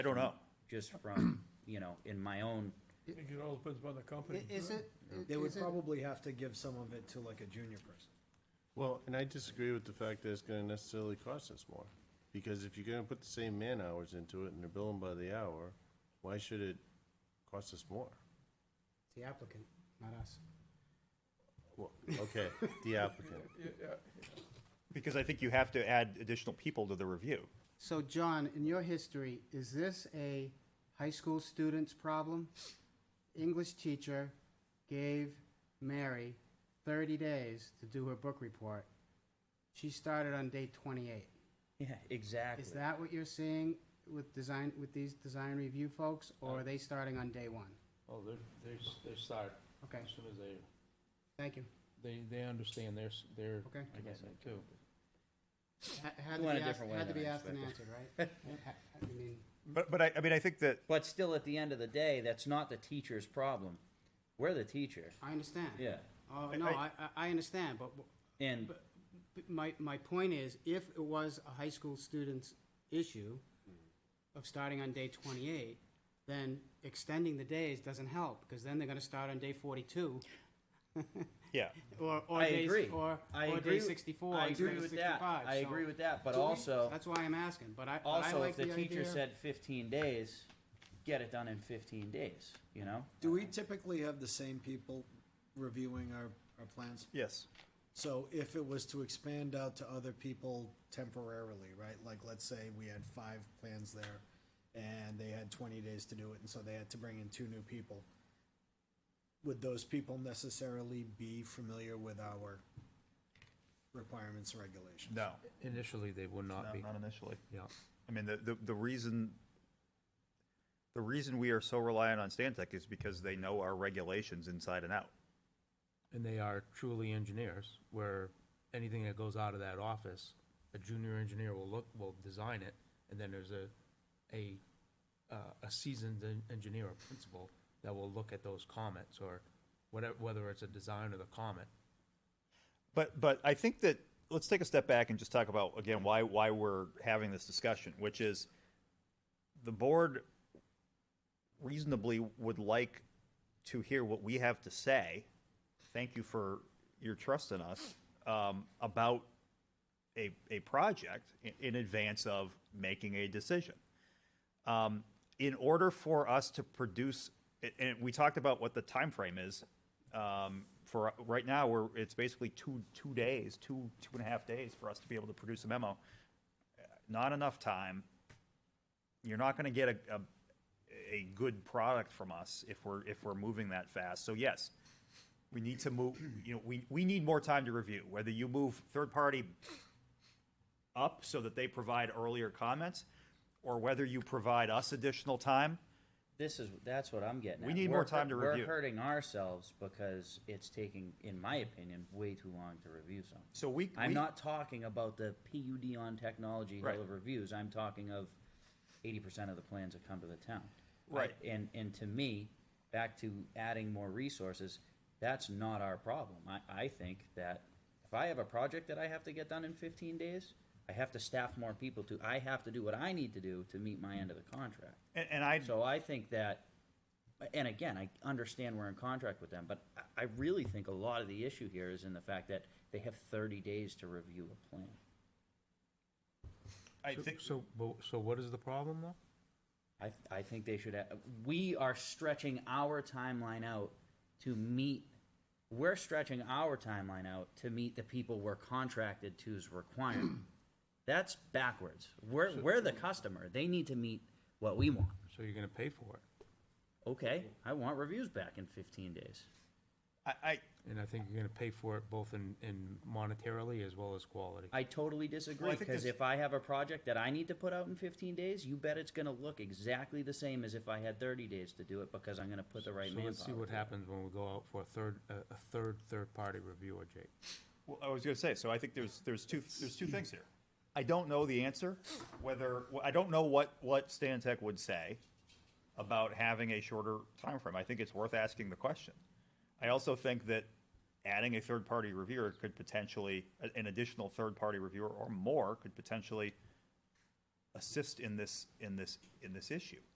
I don't know. just from, you know, in my own, I think it all depends upon the company. Is it, They would is it, probably have to give some of it to like a junior person. Well, and I disagree with the fact that it's gonna necessarily cost us more, because if you're gonna put the same man hours into it and they're billing by the hour, why should it cost us more? the applicant, not us. Well, okay, the applicant. Because I think you have to add additional people to the review. So John, in your history, is this a high school student's problem? English teacher gave Mary thirty days to do her book report. She started on day twenty-eight. yeah, exactly. Is that what you're seeing with design, with these design review folks, or are they starting on day one? Oh, they're, they, s- they start Okay, as soon as they, thank you. they, they understand their, s- their Okay. commitment too. Ha- Had to Went a be asked, different way had to than be I asked and answered, right? Ha- I mean, But, but I, I mean, I think that, But still, at the end of the day, that's not the teacher's problem. We're the teacher, I understand. yeah. Oh, I- no, I, I- I, I understand, but w- And But My, my point is, if it was a high school student's issue of starting on day twenty-eight, then extending the days doesn't help, because then they're gonna start on day forty-two, yeah, or, or I days, agree. or, I or agree. day with- sixty-four, I or agree day with that. sixty-five. I so agree with that, but also, That's why I'm asking, but I, but I also, like if the the teacher idea. said fifteen days, get it done in fifteen days, you know? Do we typically have the same people reviewing our, our plans? yes. So if it was to expand out to other people temporarily, right? Like, let's say we had five plans there and they had twenty days to do it, and so they had to bring in two new people. Would those people necessarily be familiar with our requirements and regulations? No, Initially, they would no, not be, not initially. yeah. I mean, the, the, the reason, the reason we are so reliant on Stantec is because they know our regulations inside and out. And they are truly engineers, where anything that goes out of that office, a junior engineer will look, will design it, and then there's a, a, uh, a seasoned en- engineer or principal that will look at those comments, or whatever, whether it's a design or the comment. But, but I think that, let's take a step back and just talk about, again, why, why we're having this discussion, which is the board reasonably would like to hear what we have to say. Thank you for your trust in us, um, about a, a project in, in advance of making a decision. Um, in order for us to produce, a- and we talked about what the time frame is. Um, for right now, we're it's basically two two days, two two and a half days for us to be able to produce a memo. Uh, Not enough time. You're not going to get a, a a good product from us if we're if we're moving that fast. So yes, we need to move. You know, we we need more time to review. Whether you move third party up so that they provide earlier comments, or whether you provide us additional time. This is, that's what I'm getting at. We need more We're time hurt- to review. We're hurting ourselves because it's taking, in my opinion, way too long to review something. So we, I'm we- not talking about the PUD on technology hill Right. of reviews, I'm talking of eighty percent of the plans that come to the town. Right. I- And, and to me, back to adding more resources, that's not our problem. I, I think that if I have a project that I have to get done in fifteen days, I have to staff more people to, I have to do what I need to do to meet my end of the contract. and, and I So I think that, and again, I understand we're in contract with them, but I- I really think a lot of the issue here is in the fact that they have thirty days to review a plan. I So- think So, but- so what is the problem, though? I, I think they should, have- we are stretching our timeline out to meet, we're stretching our timeline out to meet the people we're contracted to's requirement. That's backwards. We're, we're the customer. They need to meet what we want. So you're gonna pay for it, Okay, I want reviews back in fifteen days. I, I and I think you're gonna pay for it both in, in monetarily as well as quality. I totally disagree, Well, I think because there's- if I have a project that I need to put out in fifteen days, you bet it's gonna look exactly the same as if I had thirty days to do it, because I'm gonna put the right So manpower. let's see what to it. happens when we go out for a third, a a third, third-party reviewer, Jake. well, I was going to say. So I think there's there's two there's two things here. I don't know the answer. Whether well, I don't know what what Stantec would say about having a shorter time frame. I think it's worth asking the question. I also think that adding a third party reviewer could potentially a- an additional third party reviewer or more could potentially assist in this, in this, in this issue.